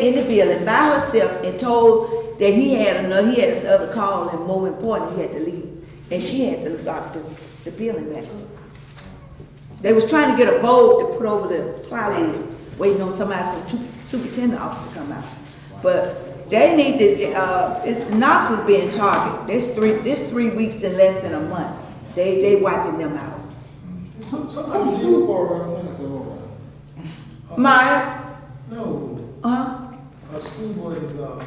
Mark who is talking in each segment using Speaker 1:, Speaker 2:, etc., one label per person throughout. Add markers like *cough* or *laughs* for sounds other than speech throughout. Speaker 1: in the building by herself and told that he had another, he had another call and more important, he had to leave. And she had to lock the, the building back. They was trying to get a boat to put over the plywood, waiting on somebody from su- superintendent office to come out. But they need to, uh, it, Knox is being targeted. This three, this three weeks in less than a month. They, they wiping them out.
Speaker 2: Some- Sometimes you look around, sometimes you look around.
Speaker 1: My,
Speaker 3: No,
Speaker 1: uh,
Speaker 3: a school board is,
Speaker 2: um,
Speaker 3: uh,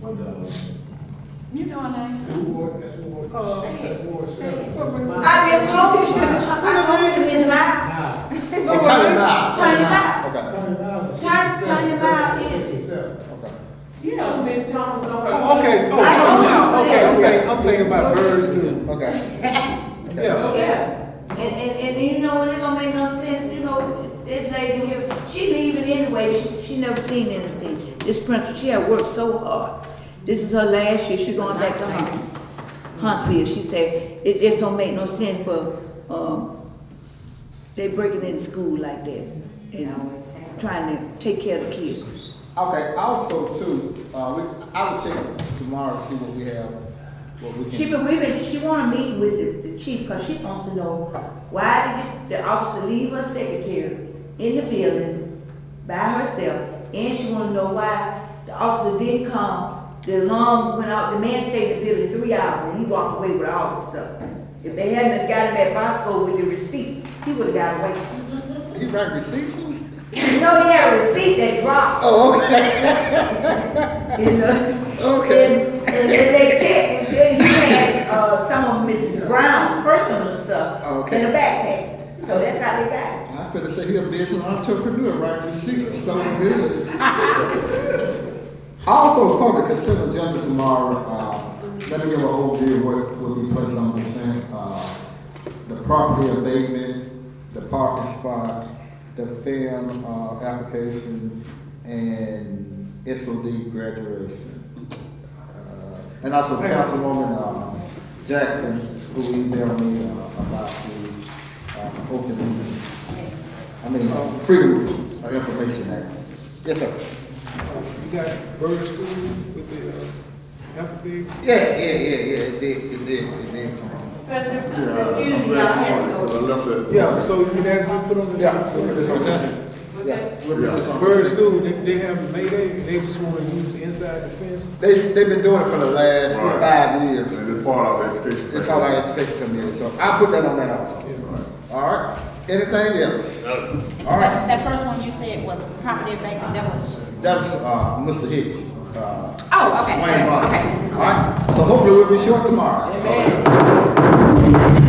Speaker 3: what the,
Speaker 4: You know her name?
Speaker 2: Who wore, that's who wore,
Speaker 1: Oh,
Speaker 3: uh.
Speaker 2: that's who wore seven.
Speaker 1: I just told you, I told you, Ms. Mike.
Speaker 2: Oh, turn it out.
Speaker 1: Turn it out.
Speaker 2: Okay.
Speaker 1: Turn- turn it out, yeah.
Speaker 2: Sixty-seven, okay.
Speaker 5: You know, Miss Thomas know her.
Speaker 3: Oh, okay, oh,
Speaker 1: I
Speaker 3: no,
Speaker 1: don't
Speaker 3: no,
Speaker 1: know.
Speaker 3: okay, okay, I'm thinking about Bird's Hill.
Speaker 2: Okay.
Speaker 3: Yeah,
Speaker 1: Yeah, and, and, and you know, it don't make no sense, you know, this lady here, she leaving anyway, she, she never seen anything. This principal, she had worked so hard, this is her last year, she going back to Hunts, Huntsville, she said, it just don't make no sense for, um, they breaking in school like that, you know, trying to take care of the kids.
Speaker 2: Okay, also too, uh, we, I will check tomorrow, to see what we have, what we
Speaker 1: She
Speaker 2: can.
Speaker 1: been, we been, she wanna meet with the- the chief, cause she wants to know why did the officer leave her secretary in the building by herself? And she wanna know why the officer didn't come, the alarm went out, the man stayed in the building three hours and he walked away with all the stuff. If they hadn't got him at Bosco with the receipt, he would've got away.
Speaker 2: He might receive some.
Speaker 1: You know, he had a receipt that dropped,
Speaker 2: Oh, okay,
Speaker 1: *laughs* you know?
Speaker 2: okay.
Speaker 1: And, and then they checked, and then he had, uh, some of Mrs. Brown's personal stuff
Speaker 2: Oh, Okay.
Speaker 1: in a backpack. So that's how they got it.
Speaker 2: I better say he a business entrepreneur, right? He seeks stolen goods. *laughs* Also, from the consent agenda tomorrow, uh, let me give an overview of what will be placed on consent. Uh, The property abatement, the parking spot, the FAM, uh, application, and SOD graduation. Uh, And also Councilwoman, uh, Jackson, who emailed me, uh, about the, uh, open meeting. I mean, uh, Freedom of Information Act. Yes, sir. Uh,
Speaker 3: you got Bird's School with the, uh, empathy.
Speaker 2: Yeah, yeah, yeah, yeah, it did, it did, it did. come on.
Speaker 5: President,
Speaker 6: Yeah,
Speaker 5: excuse
Speaker 6: I'm
Speaker 5: me,
Speaker 6: glad
Speaker 5: I
Speaker 6: you
Speaker 5: had to
Speaker 6: wanted it,
Speaker 5: go.
Speaker 6: 'cause I left that.
Speaker 3: Yeah, so you can actually put on the.
Speaker 2: Yeah, so it's on
Speaker 5: What's
Speaker 2: Yeah,
Speaker 5: that?
Speaker 2: we'll put this on.
Speaker 3: Bird's School, they, they have May Day, and they just wanna use the inside the fence.
Speaker 2: They, they've been doing it for the last
Speaker 6: Right.
Speaker 2: five years.
Speaker 6: And it's part of the education.
Speaker 2: It's called our education committee, so I put that on that also. All right, anything else?
Speaker 3: Oh.
Speaker 2: All
Speaker 4: That,
Speaker 2: right,
Speaker 4: that first one you said was property abatement, that was,
Speaker 2: that's, uh, Mr. Hicks. uh,
Speaker 4: oh,
Speaker 5: *laughs*
Speaker 4: okay,
Speaker 2: Wayne Martin.
Speaker 4: okay.
Speaker 2: All right, so hopefully we'll be short tomorrow.
Speaker 5: Amen.